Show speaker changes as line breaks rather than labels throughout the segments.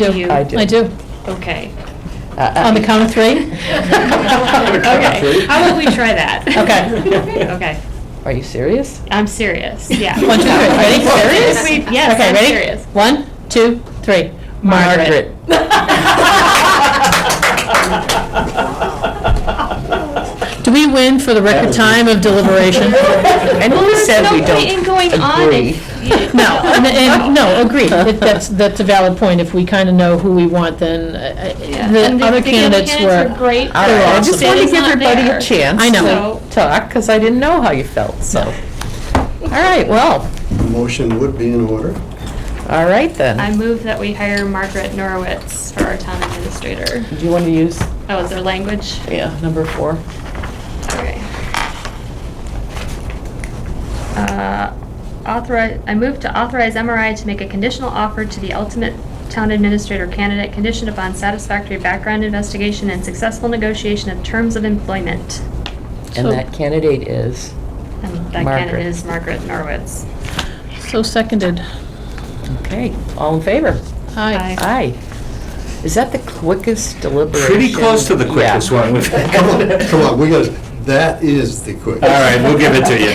Do
You?
I do.
I do.
Okay. Uh,
On the count of three?
Okay, how about we try that?
Okay.
Okay,
Are you serious?
I'm serious, yeah.
One, two, three. Ready? Serious?
We- Yes,
Okay,
I'm
ready?
serious.
One, two, three. Margaret. Do we win for the record time of deliberation?
And who said we
No point in
don't?
going on
agree.
if. you-
No, and, and, no, agreed. That- That's, that's a valid point. If we kind of know who we want, then uh,
Yeah,
uh, the
and
other candidates
candidates
were.
great.
All right, I
but
just
Sid
wanted to
is
give
not
everybody
there.
a chance
I know.
to talk, because I didn't know how you felt, so. All right, well,
Motion would be in order.
all right then.
I move that we hire Margaret Norowitz for our town administrator.
Do you want to use,
Oh, is there language?
yeah, number four?
Okay. Uh, Authorize, I move to authorize MRI to make a conditional offer to the ultimate town administrator candidate conditioned upon satisfactory background investigation and successful negotiation of terms of employment.
And
So-
that candidate is,
And that
Margaret.
candidate is Margaret Norwitz.
So seconded.
okay, all in favor?
Aye.
Aye. Is that the quickest deliberation?
Pretty close to the
Yeah.
quickest one. We've had.
Come on, come on, we got, that is the quick.
All right, we'll give it to you.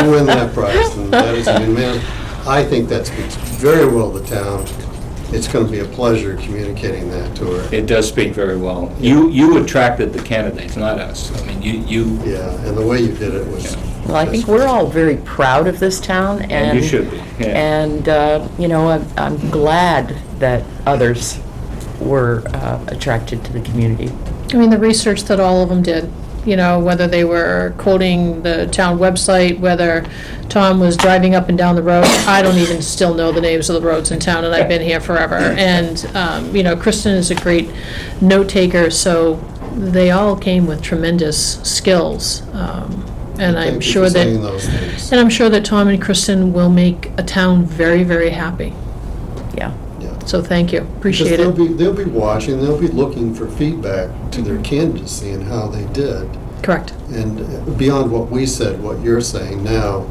You you win that prize, and that is, I mean, man, I think that speaks very well to town. It's going to be a pleasure communicating that to her.
It does speak very well. You, you attracted the candidates, not us. I mean, you, you,
Yeah, and the way you did it was.
Well, I think we're all very proud of this town, and...
and you should be, yeah.
And, uh, you know, I'm- I'm glad that others were uh, attracted to the community.
I mean, the research that all of them did, you know, whether they were quoting the town website, whether Tom was driving up and down the road, I don't even still know the names of the roads in town, and I've been here forever. And, um, you know, Kristen is a great note taker, so they all came with tremendous skills. um, And
Thank
I'm
you for
sure that,
saying
and
those things.
I'm sure that Tom and Kristen will make a town very, very happy.
Yeah.
Yeah.
So thank you,
Because
appreciate
they'll
it.
be, they'll be watching, they'll be looking for feedback to
Mm-hmm.
their candidacy and how they did.
Correct.
And beyond what we said, what you're saying now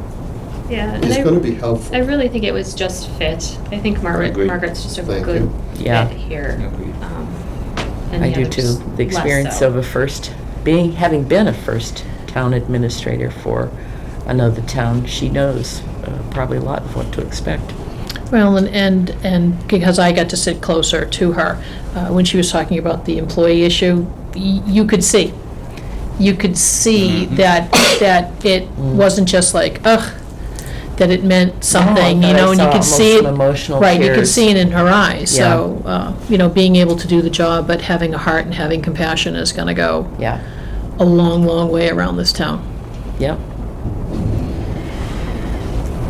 Yeah,
is going to be helpful.
I really think it was just fit. I think Margaret,
Agreed.
Margaret's just a
Thank
good
you.
Yeah.
fit here.
Agreed.
um, and
I
the
do
others
too. The
less
experience
so.
of a first, being, having been a first town administrator for another town, she knows uh, probably a lot of what to expect.
Well, and, and, and because I got to sit closer to her, uh, when she was talking about the employee issue, y- you could see. You could see
Mm-hmm.
that, that it wasn't just like, ugh, that it meant something,
Mm. No, I
you know, and you
saw
could see it.
almost some emotional
Right, you could
tears.
see it in her eyes, so, uh, you know, being able to do the job, but having a heart and having compassion is gonna go
Yeah,
a long, long way around this town.
yep.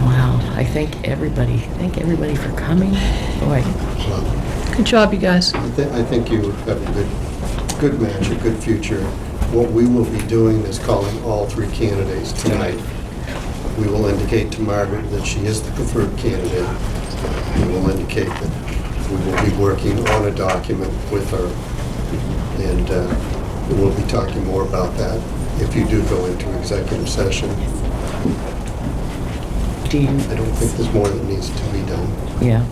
Wow, I thank everybody, thank everybody for coming. Boy,
Well,
Good job, you guys.
I thi- I think you have a good, good match, a good future. What we will be doing is calling all three candidates tonight. We will indicate to Margaret that she is the preferred candidate. We will indicate that we will be working on a document with her, and uh, we will be talking more about that if you do go into executive session.
do you,
I don't think there's more that needs to be done.
Yeah.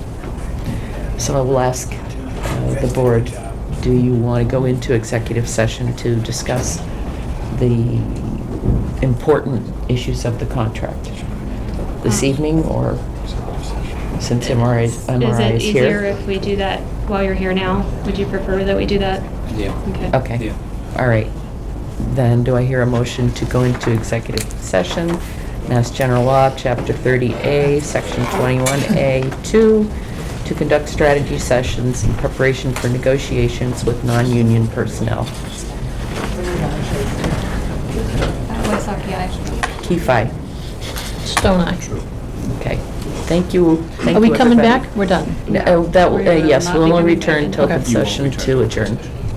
So I will ask uh, the board, do you want to go into executive session to discuss the important issues of the contract this
Uh-huh.
evening or since MRI is
Is
MRI
it
is
easier
here?
if we do that while you're here now? Would you prefer that we do that?
Yeah,
Okay.
Okay,
yeah.
all right. Then do I hear a motion to go into executive session? Mass General Law, Chapter 30A, Section 21A2, to conduct strategy sessions in preparation for negotiations with non-union personnel. Keefe, aye.
Stone Eye.
Okay, thank you. Thank
Are we
you,
coming
everybody.
back? We're done.
No, that, will- uh,
We will
yes,
not
we'll
be
only
coming back
return
in.
to open
Okay.
You won't
session
return
to adjourn.
session.